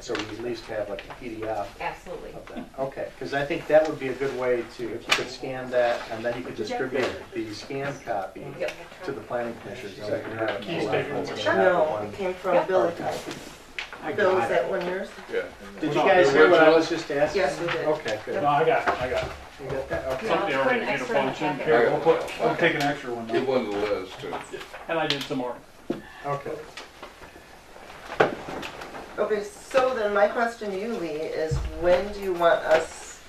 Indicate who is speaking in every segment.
Speaker 1: So we at least have like a PDF
Speaker 2: Absolutely.
Speaker 1: of that. Okay, because I think that would be a good way to, if you could scan that, and then you could distribute the scanned copy
Speaker 2: Yep.
Speaker 1: to the planning commissioners. so they can have it
Speaker 3: Keys
Speaker 1: pulled
Speaker 3: taken.
Speaker 1: up once they have the
Speaker 4: No,
Speaker 1: one.
Speaker 4: it came from Bill.
Speaker 3: I
Speaker 4: Bill,
Speaker 3: got
Speaker 4: was
Speaker 3: it.
Speaker 4: that one yours?
Speaker 5: Yeah.
Speaker 1: Did you guys hear what I was just asking?
Speaker 4: Yes, we did.
Speaker 1: Okay, good.
Speaker 3: No, I got it, I got it.
Speaker 1: You got that? Okay.
Speaker 2: Yeah.
Speaker 3: Something
Speaker 2: I'll put
Speaker 3: already
Speaker 2: an
Speaker 3: made a
Speaker 2: extra in the
Speaker 3: function.
Speaker 2: packet.
Speaker 3: Here, we'll put, I'll take an extra one
Speaker 5: Give
Speaker 3: now.
Speaker 5: one to Liz too.
Speaker 3: And I did some more.
Speaker 1: Okay.
Speaker 4: Okay, so then my question to you, Lee, is when do you want us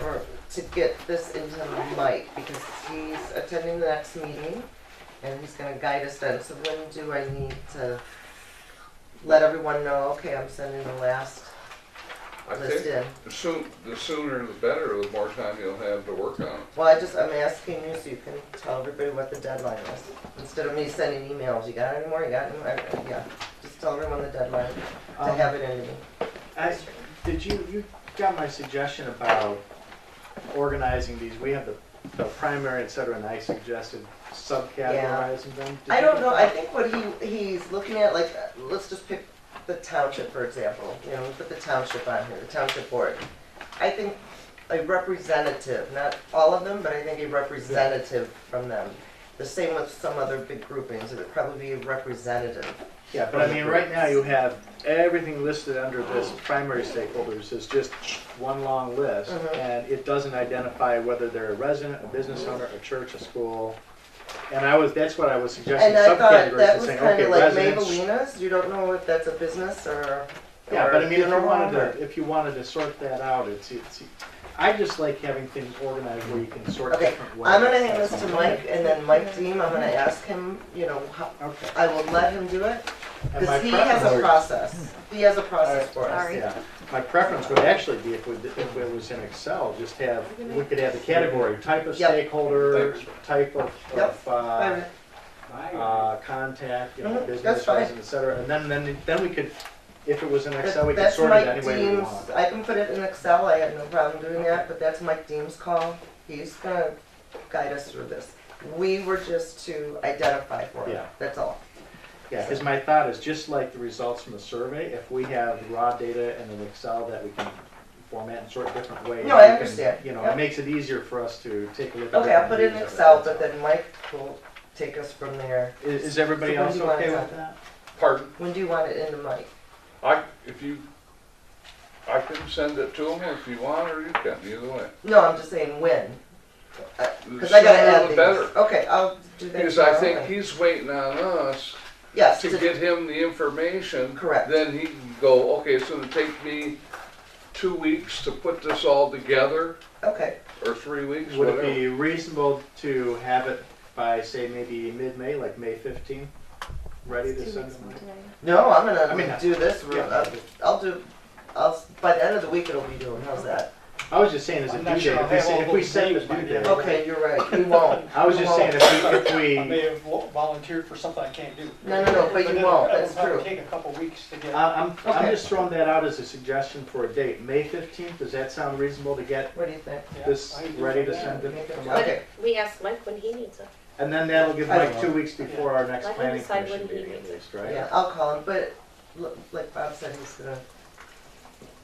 Speaker 4: or to get this into Mike? Because he's attending the next meeting and he's gonna guide us then, so when do I need to let everyone know, okay, I'm sending the last
Speaker 5: I
Speaker 4: list
Speaker 5: think
Speaker 4: in?
Speaker 5: the soon, the sooner the better, the more time you'll have to work on it.
Speaker 4: Well, I just, I'm asking you so you can tell everybody what the deadline is, instead of me sending emails, you got any more, you got any, more? yeah. Just tell everyone the deadline to
Speaker 1: Um,
Speaker 4: have it in me.
Speaker 1: I, did you, you got my suggestion about organizing these, we have the, the primary, et cetera, and I suggested subcategorizing them. Did
Speaker 4: I
Speaker 1: you-
Speaker 4: don't know, I think what he, he's looking at, like, uh, let's just pick the township, for example, you know, we put the township on here, the township board. I think a representative, not all of them, but I think a representative from them. The same with some other big groupings, it would probably be a representative.
Speaker 1: Yeah, but I mean, right now you have everything listed under this primary stakeholders is just one long list,
Speaker 4: Mhm.
Speaker 1: and it doesn't identify whether they're a resident, a business owner, a church, a school. And I was, that's what I was suggesting,
Speaker 4: And I thought
Speaker 1: subcategories
Speaker 4: that
Speaker 1: and
Speaker 4: was
Speaker 1: saying,
Speaker 4: kinda
Speaker 1: okay,
Speaker 4: like
Speaker 1: residents.
Speaker 4: Mavelina's, you don't know if that's a business or.
Speaker 1: Yeah,
Speaker 4: or
Speaker 1: but I mean, if you
Speaker 4: funeral
Speaker 1: wanted
Speaker 4: home or-
Speaker 1: to, if you wanted to sort that out, it's, it's, I just like having things organized where you can sort
Speaker 4: Okay,
Speaker 1: different ways.
Speaker 4: I'm gonna hand this to Mike, and then Mike Deem, I'm gonna ask him, you know, how,
Speaker 1: Okay.
Speaker 4: I will let him do it,
Speaker 1: And my
Speaker 4: Because he has a
Speaker 1: preference-
Speaker 4: process. He has a process for us.
Speaker 2: Sorry.
Speaker 1: Yeah, my preference would actually be if we, if it was in Excel, just have, we could have the category, type of
Speaker 4: Yep.
Speaker 1: stakeholder, type of,
Speaker 4: Yep.
Speaker 1: of, uh,
Speaker 4: Alright.
Speaker 1: uh, contact, you know,
Speaker 4: Mhm,
Speaker 1: business,
Speaker 4: that's fine.
Speaker 1: resident, et cetera, and then, then, then we could, if it was in Excel, we could
Speaker 4: That's
Speaker 1: sort it
Speaker 4: Mike
Speaker 1: any way we
Speaker 4: Deems,
Speaker 1: want.
Speaker 4: I can put it in Excel, I have no problem doing that, but that's Mike Deems' call. He's gonna guide us through this. We were just to identify for it,
Speaker 1: Yeah.
Speaker 4: that's all.
Speaker 1: Yeah, because my thought is, just like the results from the survey, if we have raw data in an Excel that we can format and sort different ways.
Speaker 4: No, I
Speaker 1: we can,
Speaker 4: understand.
Speaker 1: You know,
Speaker 4: Yeah.
Speaker 1: it makes it easier for us to take a look at.
Speaker 4: Okay,
Speaker 1: different
Speaker 4: I'll put it in
Speaker 1: views of
Speaker 4: Excel, but then Mike will take us from there.
Speaker 1: Is, is everybody
Speaker 4: So when
Speaker 1: else
Speaker 4: do you want
Speaker 1: okay
Speaker 4: it
Speaker 1: with
Speaker 4: done?
Speaker 1: that?
Speaker 5: Pardon?
Speaker 4: When do you want it into Mike?
Speaker 5: I, if you, I can send it to them if you want or you can, either way.
Speaker 4: No, I'm just saying when,
Speaker 5: The
Speaker 4: because I gotta
Speaker 5: sooner
Speaker 4: add
Speaker 5: the
Speaker 4: these.
Speaker 5: better.
Speaker 4: Okay, I'll do that.
Speaker 5: Because I
Speaker 4: tomorrow
Speaker 5: think
Speaker 4: night.
Speaker 5: he's waiting on us
Speaker 4: Yes,
Speaker 5: to
Speaker 4: to-
Speaker 5: get him the information.
Speaker 4: Correct.
Speaker 5: Then he can go, okay, it's gonna take me two weeks to put this all together,
Speaker 4: okay,
Speaker 5: or three weeks,
Speaker 1: Would it
Speaker 5: whatever.
Speaker 1: be reasonable to have it by, say, maybe mid-May, like May 15th, ready to send them?
Speaker 4: no, I'm
Speaker 1: I mean,
Speaker 4: gonna do this,
Speaker 1: yeah.
Speaker 4: I'll- I'll do, I'll, by the end of the week it'll be doing, how's that?
Speaker 1: I was just saying as a
Speaker 3: I'm
Speaker 1: due
Speaker 3: not
Speaker 1: date,
Speaker 3: sure
Speaker 1: if
Speaker 3: I'll
Speaker 1: we
Speaker 3: have all
Speaker 1: say- if we
Speaker 3: those
Speaker 1: set the
Speaker 3: dates by
Speaker 1: due
Speaker 3: then.
Speaker 1: date.
Speaker 4: Okay, you're right, you won't.
Speaker 1: I was
Speaker 4: You
Speaker 1: just
Speaker 4: won't.
Speaker 1: saying if we,
Speaker 3: I may
Speaker 1: if
Speaker 3: have vo- volunteered for something I can't do.
Speaker 4: No, no, no, but you
Speaker 3: then
Speaker 4: won't,
Speaker 3: that would
Speaker 4: that's
Speaker 3: probably
Speaker 4: true.
Speaker 3: Take a couple weeks to
Speaker 1: we,
Speaker 3: get.
Speaker 1: I- I'm, I'm
Speaker 4: Okay.
Speaker 1: just throwing that out as a suggestion for a date. May 15th, does that sound reasonable to get
Speaker 4: What do you think?
Speaker 3: Yeah,
Speaker 1: this
Speaker 3: I can do
Speaker 1: ready to
Speaker 3: that.
Speaker 1: send it? from
Speaker 4: Okay.
Speaker 1: us?
Speaker 2: But we ask Mike when he needs it.
Speaker 1: And then that'll give
Speaker 4: I
Speaker 1: like
Speaker 4: don't
Speaker 1: two weeks before our next
Speaker 2: Let him
Speaker 1: planning
Speaker 2: decide
Speaker 1: commission
Speaker 2: when he
Speaker 1: meeting at
Speaker 2: needs it.
Speaker 1: least, right?
Speaker 4: Yeah, I'll call him, but l- like Bob said, he's gonna,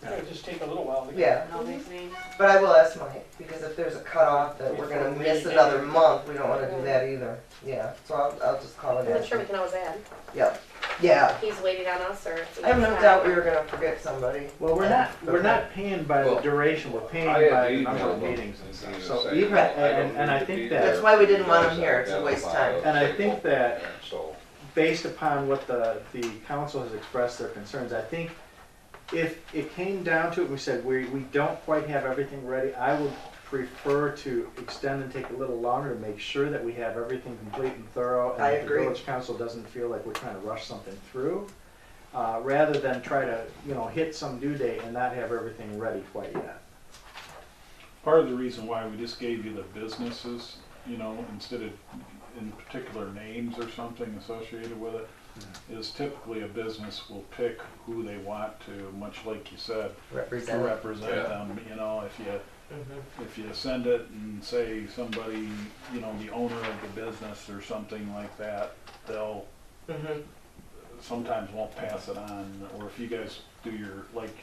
Speaker 3: It'll just take a little while to get.
Speaker 4: yeah, but I will ask Mike, because if there's a cutoff that we're gonna
Speaker 3: Before
Speaker 4: miss
Speaker 3: we-
Speaker 4: another month, we don't wanna do that either. Yeah, so I'll, I'll just call it
Speaker 2: I'm sure we
Speaker 4: in.
Speaker 2: can always add.
Speaker 4: Yeah, yeah.
Speaker 2: He's waiting on us or. if he
Speaker 4: I have no
Speaker 2: decides.
Speaker 4: doubt we were gonna forget somebody.
Speaker 1: Well, we're not, we're
Speaker 4: Okay.
Speaker 1: not paying by the
Speaker 5: Well,
Speaker 1: duration, we're paying
Speaker 5: I had
Speaker 1: by the
Speaker 5: emailed
Speaker 1: number of
Speaker 5: them
Speaker 1: meetings and stuff.
Speaker 5: and
Speaker 1: So
Speaker 5: said,
Speaker 1: even,
Speaker 5: "I don't
Speaker 1: and, and I
Speaker 5: need to be
Speaker 1: think
Speaker 5: there."
Speaker 1: that
Speaker 4: That's why we didn't want him here, it's a waste of time.
Speaker 1: And I think that-
Speaker 5: So,
Speaker 1: based upon what the, the council has expressed their concerns, I think if it came down to it, we said, we, we don't quite have everything ready, I would prefer to extend and take a little longer to make sure that we have everything complete and thorough.
Speaker 4: I
Speaker 1: And that the
Speaker 4: agree.
Speaker 1: village council doesn't feel like we're trying to rush something through, uh, rather than try to, you know, hit some due date and not have everything ready quite yet.
Speaker 6: Part of the reason why we just gave you the businesses, you know, instead of in particular names or something associated with it, is typically a business will pick who they want to, much like you said, to
Speaker 4: Representative.
Speaker 6: represent
Speaker 5: Yeah.
Speaker 6: them, you know, if you,
Speaker 4: Mhm.
Speaker 6: if you send it and say somebody, you know, the owner of the business or something like that, they'll
Speaker 4: Mhm.
Speaker 6: sometimes won't pass it on, or if you guys do your, like